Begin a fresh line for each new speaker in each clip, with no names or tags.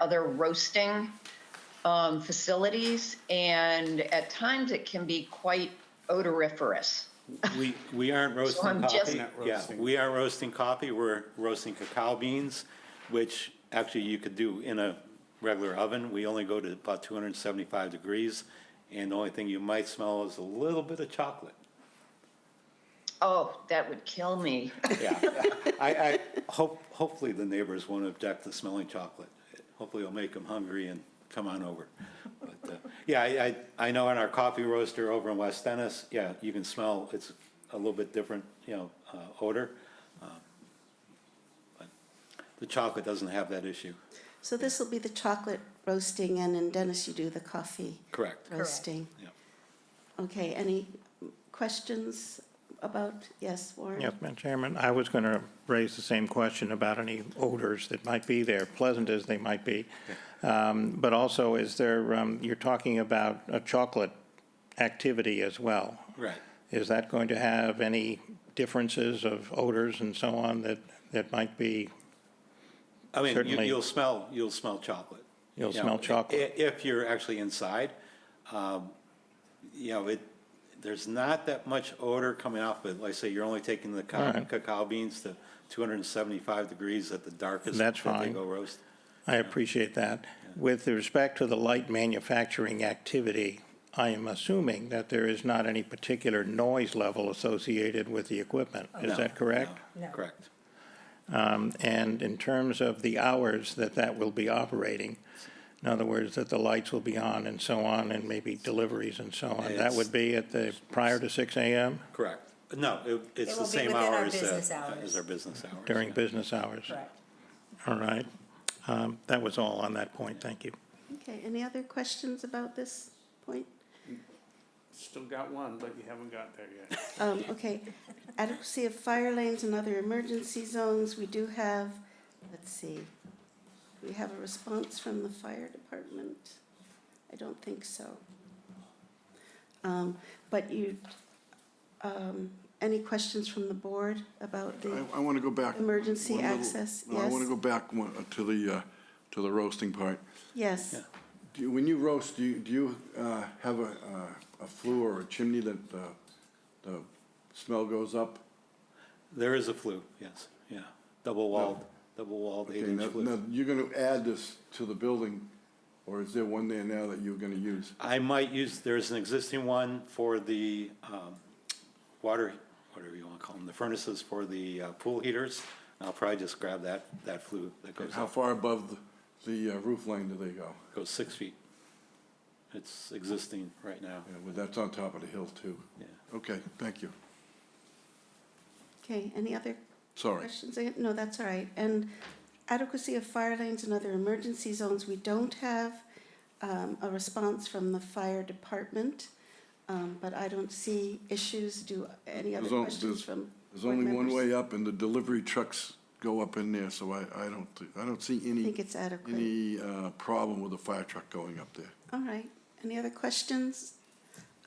other roasting um, facilities, and at times it can be quite odoriferous.
We, we aren't roasting
I'm just-
coffee.
Not
Yeah,
roasting.
we are roasting coffee, we're roasting cacao beans, which actually you could do in a regular oven. We only go to about two hundred and seventy-five degrees, and the only thing you might smell is a little bit of chocolate.
Oh, that would kill me.
Yeah, I, I, hope, hopefully the neighbors won't object to smelling chocolate. Hopefully it'll make them hungry and come on over. But, uh, yeah, I, I, I know in our coffee roaster over in West Dennis, yeah, you can smell, it's a little bit different, you know, uh, odor. Uh, but The chocolate doesn't have that issue.
So this will be the chocolate roasting, and in Dennis, you do the coffee
Correct.
roasting.
Yeah.
Okay, any questions about, yes, Warren?
Yes, Madam Chairman, I was going to raise the same question about any odors that might be there, pleasant as they might be. Um, But also, is there, um, you're talking about a chocolate activity as well.
Right.
Is that going to have any differences of odors and so on that, that might be,
I mean, you,
Certainly.
you'll smell, you'll smell chocolate.
You'll
You know,
smell chocolate.
i- If you're actually inside, um, you know, it, there's not that much odor coming off, but like I say, you're only taking the
All
cacao,
right.
cacao beans to two hundred and seventy-five degrees at the darkest.
That's
that They
fine.
go roast.
I appreciate that. With respect to the light manufacturing activity, I am assuming that there is not any particular noise level associated with the equipment. Is
No,
that correct?
no, Correct.
And in terms of the hours that that will be operating, in other words, that the lights will be on and so on, and maybe deliveries and so on, that
It's-
would be at the, prior to six AM
Correct. No, it, it's
It
the
will be
same
within our
hours
business
as, uh, as
hours.
our business hours.
during
yeah.
business hours?
Correct.
All right. Um, That was all on that point, thank you.
Okay, any other questions about this point?
Still got one, but you haven't got there yet.
Um, okay, adequacy of fire lanes and other emergency zones, we do have, let's see, we have a response from the fire department? I don't think so. Um, but you, um, any questions from the board about the,
I, I want to go back.
Emergency
one little-
access,
No, I want
yes.
to go back one, uh, to the, uh, to the roasting part.
yes,
Do, you- when you roast, do you, do you, uh, have a, uh, a flue or a chimney that the, the smell goes up?
There is a flue, yes, yeah. Double walled, double walled
Okay,
eight inch
now-
flue.
Now, you're going to add this to the building, or is there one there now that you're going to use?
I might use, there's an existing one for the um, water, whatever you want to call them, the furnaces for the uh, pool heaters. I'll probably just grab that, that flue that goes
How
up,
far above the- the uh, roof line do they go?
goes six feet. It's existing right now.
Yeah, well, that's on top of the hill too.
Yeah.
Okay, thank you.
okay, any other
Sorry.
Questions? again? No, that's all right. And adequacy of fire lanes and other emergency zones, we don't have um, a response from the fire department, um, but I don't see issues. Do any other
There's on-
questions from?
There's
board
only one
members?
way up, and the delivery trucks go up in there, so I, I don't, thi- I don't see
I
any.
think it's adequate.
Any uh, problem with a fire truck going up there?
All right. Any other questions?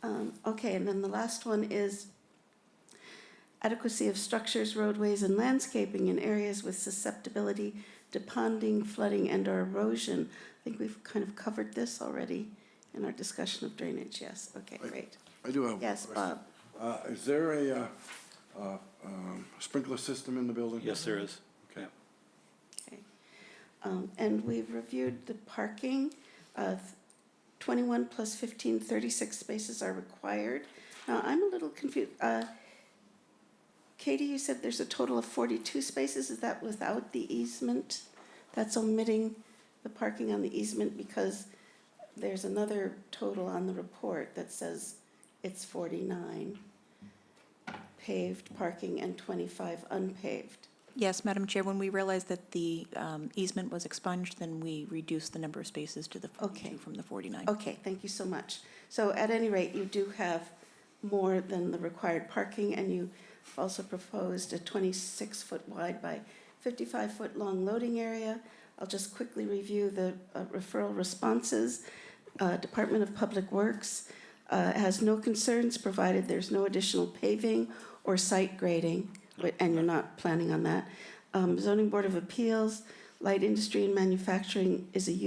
Um, Okay, and then the last one is adequacy of structures, roadways, and landscaping in areas with susceptibility to ponding, flooding, and/or erosion. I think we've kind of covered this already in our discussion of drainage, yes, okay, great.
I do have.
Yes, Bob,
Uh, Is there a uh, uh, um, sprinkler system in the building?
Yes, there is.
Okay.
Yeah.
okay. Um, And we've reviewed the parking of 21 plus 15, 36 spaces are required. Now, I'm a little confused, Katie, you said there's a total of 42 spaces, is that without the easement? That's omitting the parking on the easement because there's another total on the report that says it's 49 paved parking and 25 unpaved.
Yes, Madam Chair, when we realized that the um, easement was expunged, then we reduced the number of spaces to the
Okay.
42 from the 49.
Okay, thank you so much. So at any rate, you do have more than the required parking, and you also proposed a 26-foot wide by 55-foot long loading area. I'll just quickly review the uh, referral responses. Uh, Department of Public Works uh, has no concerns, provided there's no additional paving or site grading, but- and you're not planning on that. Um, Zoning Board of Appeals, light industry and manufacturing is a use